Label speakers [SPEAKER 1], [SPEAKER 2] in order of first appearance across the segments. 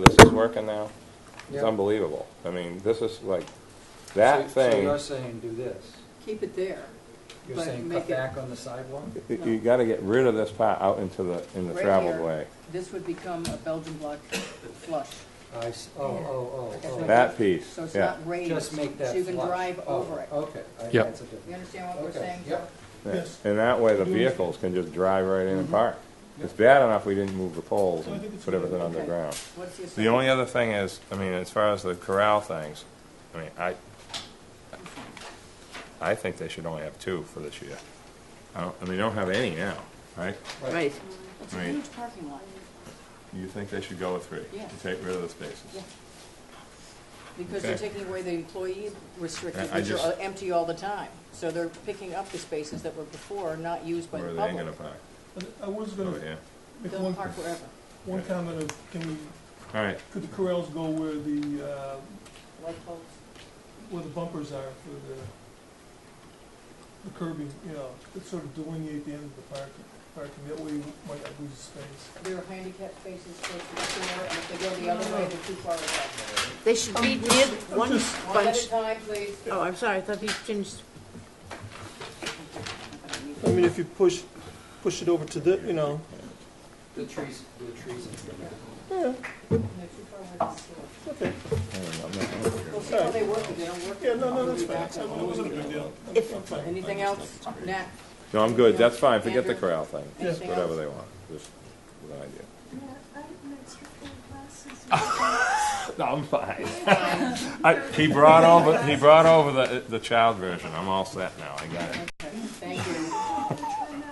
[SPEAKER 1] this is working now? It's
[SPEAKER 2] Yeah.
[SPEAKER 1] unbelievable. I mean, this is like,
[SPEAKER 2] So-
[SPEAKER 1] that
[SPEAKER 2] So
[SPEAKER 1] thing,
[SPEAKER 2] you're saying do this.
[SPEAKER 3] keep it there.
[SPEAKER 2] You're
[SPEAKER 3] But
[SPEAKER 2] saying
[SPEAKER 3] make
[SPEAKER 2] cut
[SPEAKER 3] it-
[SPEAKER 2] back on the sidewalk?
[SPEAKER 1] y- you gotta get rid of this part out into the, in the
[SPEAKER 3] Right
[SPEAKER 1] traveled
[SPEAKER 3] here.
[SPEAKER 1] way.
[SPEAKER 3] This would become a Belgian block flush.
[SPEAKER 2] I s oh, oh, oh, oh.
[SPEAKER 1] That piece,
[SPEAKER 3] So it's
[SPEAKER 1] yeah.
[SPEAKER 3] not raised.
[SPEAKER 2] Just make that
[SPEAKER 3] So you can
[SPEAKER 2] flush.
[SPEAKER 3] drive
[SPEAKER 2] Oh,
[SPEAKER 3] over it.
[SPEAKER 2] Okay. I-
[SPEAKER 4] Yep.
[SPEAKER 2] that's a different-
[SPEAKER 3] You understand what we're
[SPEAKER 2] okay,
[SPEAKER 3] saying? Joe?
[SPEAKER 2] Yep.
[SPEAKER 1] Yeah.
[SPEAKER 5] Yes.
[SPEAKER 1] And that way the
[SPEAKER 3] Mm-hmm.
[SPEAKER 1] vehicles can just drive right in and park. It's bad enough we didn't move the poles
[SPEAKER 5] I think
[SPEAKER 1] and
[SPEAKER 5] it's
[SPEAKER 1] put everything
[SPEAKER 5] good.
[SPEAKER 3] Okay.
[SPEAKER 1] underground.
[SPEAKER 3] What's your
[SPEAKER 1] The
[SPEAKER 3] second?
[SPEAKER 1] only other thing is, I mean, as far as the corral things, I mean, I, I think they should only have two for this year. I don't, and they don't have any now, right?
[SPEAKER 3] Right. It's a
[SPEAKER 1] Right.
[SPEAKER 3] huge parking lot,
[SPEAKER 1] You think they should go with three?
[SPEAKER 3] Yeah.
[SPEAKER 1] And take rid of the spaces?
[SPEAKER 3] Yeah. because they're
[SPEAKER 1] Okay.
[SPEAKER 3] taking away the employee restrictions,
[SPEAKER 1] I- I
[SPEAKER 3] which
[SPEAKER 1] just-
[SPEAKER 3] are empty all the time. So they're picking up the spaces that were before not used by
[SPEAKER 1] Where
[SPEAKER 3] the
[SPEAKER 1] are they gonna Oh,
[SPEAKER 3] public.
[SPEAKER 1] park?
[SPEAKER 5] But I was
[SPEAKER 3] Hmm.
[SPEAKER 1] Over
[SPEAKER 5] gonna
[SPEAKER 1] here?
[SPEAKER 5] make
[SPEAKER 3] They'll
[SPEAKER 5] one,
[SPEAKER 3] park wherever.
[SPEAKER 5] one comment of, can we,
[SPEAKER 1] All right,
[SPEAKER 5] could the corrals go where the, uh,
[SPEAKER 3] Light poles.
[SPEAKER 5] where the bumpers are for the, the curbing, you know, that sort of delineate the end of the parking, parking, that way you might not lose space.
[SPEAKER 3] There are handicap spaces close to the door, and if they go the other way, they're too far away.
[SPEAKER 6] They should be near one
[SPEAKER 5] just-
[SPEAKER 3] One at
[SPEAKER 6] bunch.
[SPEAKER 3] a time, please.
[SPEAKER 6] Oh, I'm sorry, I thought you changed.
[SPEAKER 5] I mean, if you push, push it over to the, you know,
[SPEAKER 2] The trees, the trees.
[SPEAKER 5] yeah,
[SPEAKER 3] They're too far away from the door.
[SPEAKER 5] it's okay,
[SPEAKER 1] I don't know, I'm not-
[SPEAKER 3] We'll see how they work, if they don't work.
[SPEAKER 5] yeah, no, no, that's
[SPEAKER 3] we'll be
[SPEAKER 5] fine,
[SPEAKER 3] back
[SPEAKER 5] It's- I mean,
[SPEAKER 3] on.
[SPEAKER 5] it wasn't a big deal, I'm-
[SPEAKER 6] If-
[SPEAKER 5] I'm fine.
[SPEAKER 3] Anything else? Nat?
[SPEAKER 1] No, I'm good, that's fine, forget the
[SPEAKER 3] Andrew?
[SPEAKER 1] corral thing,
[SPEAKER 3] Anything
[SPEAKER 1] whatever
[SPEAKER 3] else?
[SPEAKER 1] they want, just with an idea.
[SPEAKER 7] Yeah, I messed with their glasses.
[SPEAKER 1] No, I'm fine. I, he brought over, he brought over the, the child version, I'm all set now, I got it.
[SPEAKER 3] Okay, Thank you.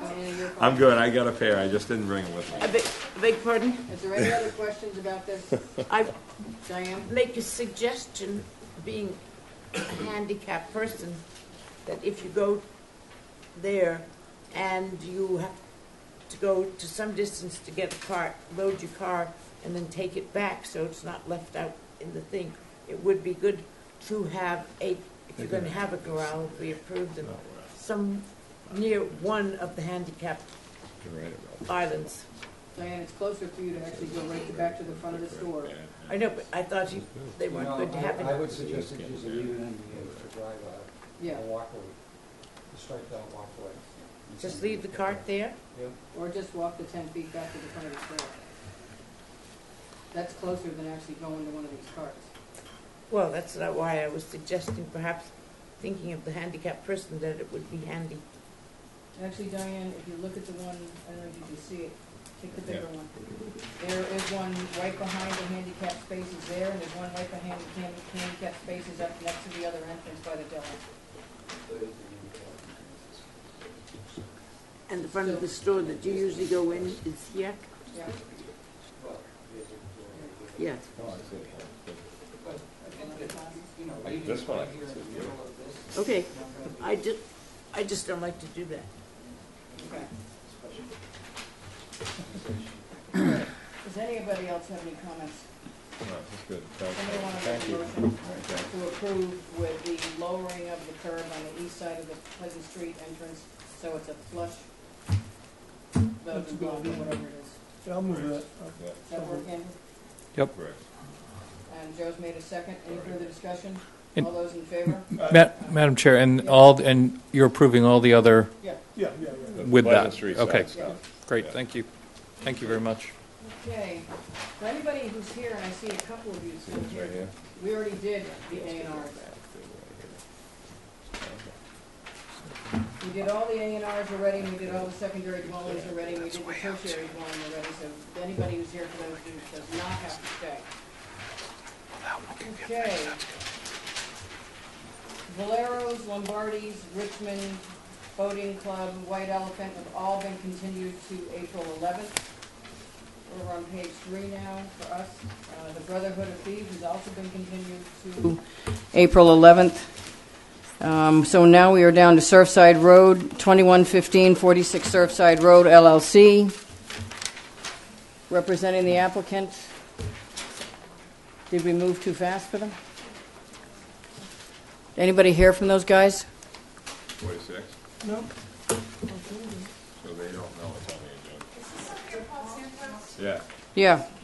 [SPEAKER 3] Any of your
[SPEAKER 1] I'm good, I got a pair, I just didn't bring them with me.
[SPEAKER 6] I beg, I beg pardon?
[SPEAKER 3] Is there any other questions about this,
[SPEAKER 6] I
[SPEAKER 3] Diane?
[SPEAKER 6] make a suggestion, being a handicapped person, that if you go there and you have to go to some distance to get a car, load your car, and then take it back, so it's not left out in the thing, it would be good to have a, if you're gonna have a corral, we approve them, some near one of the handicapped
[SPEAKER 1] You're right about
[SPEAKER 6] islands.
[SPEAKER 3] Diane, it's closer for you to actually go right back to the front of the store.
[SPEAKER 1] that.
[SPEAKER 6] I know, but I thought you, they
[SPEAKER 2] No,
[SPEAKER 6] weren't good to have
[SPEAKER 2] I I
[SPEAKER 6] it.
[SPEAKER 2] would suggest that you should leave it in the, to drive a,
[SPEAKER 3] Yeah,
[SPEAKER 2] a walkway, a striped out walkway.
[SPEAKER 6] Just leave the cart there?
[SPEAKER 2] Yeah.
[SPEAKER 3] or just walk the ten feet back to the front of the store. That's closer than actually going to one of these carts.
[SPEAKER 6] Well, that's not why I was suggesting perhaps thinking of the handicapped person that it would be handy.
[SPEAKER 3] Actually, Diane, if you look at the one, I don't know if you can see it, take the bigger
[SPEAKER 1] Yeah.
[SPEAKER 3] one. There is one right behind the handicap spaces there, and there's one right behind the hand- handicap spaces up next to the other entrance by the deli.
[SPEAKER 6] And the front of the store that you usually go in is here?
[SPEAKER 3] Yeah.
[SPEAKER 6] Yeah.
[SPEAKER 1] Oh, This one I can see.
[SPEAKER 6] Okay. I just, I just don't like to do that.
[SPEAKER 3] Okay. Does anybody else have any comments?
[SPEAKER 1] No, that's good.
[SPEAKER 3] Somebody want to
[SPEAKER 1] Thank
[SPEAKER 3] make a
[SPEAKER 1] you.
[SPEAKER 3] motion
[SPEAKER 1] Okay.
[SPEAKER 3] to approve with the lowering of the curb on the east side of the Pleasant Street entrance, so it's a flush,
[SPEAKER 5] That's
[SPEAKER 3] Belgian
[SPEAKER 5] a good
[SPEAKER 3] block,
[SPEAKER 5] idea.
[SPEAKER 3] whatever it is.
[SPEAKER 5] Yeah, I'll move that,
[SPEAKER 1] Yeah,
[SPEAKER 3] Does that work, Andrew?
[SPEAKER 1] correct.
[SPEAKER 3] And Joe's made a second. Any further discussion?
[SPEAKER 4] And-
[SPEAKER 3] All those in favor?
[SPEAKER 4] Ma- Madam Chair, and all, and you're approving all the other,
[SPEAKER 3] Yeah.
[SPEAKER 5] yeah, yeah, yeah.
[SPEAKER 1] The
[SPEAKER 4] With that.
[SPEAKER 1] Pleasant Street side
[SPEAKER 4] Okay.
[SPEAKER 1] stuff.
[SPEAKER 4] great, thank you. Thank you very much.
[SPEAKER 3] Okay. For anybody who's here, and I see a couple of you still
[SPEAKER 1] It's right
[SPEAKER 3] here,
[SPEAKER 1] here.
[SPEAKER 3] we already did the A and Rs. We did all the A and Rs already, and we did all the secondary dwellings already, and we did the tertiary dwelling already, so anybody who's here for those who does not have to stay. Okay. Valero's, Lombardi's, Richmond, Boating Club, White Elephant have all been continued to April eleventh. We're on page three now for us. Uh, The Brotherhood of Thieves has also been continued to April eleventh. Um, So now we are down to Surfside Road, 2115, 46 Surfside Road LLC. Representing the applicant. Did we move too fast for them? Anybody hear from those guys?
[SPEAKER 1] Forty-six,
[SPEAKER 5] No,
[SPEAKER 1] so they don't know it's on the agenda. Yeah,
[SPEAKER 3] Yeah,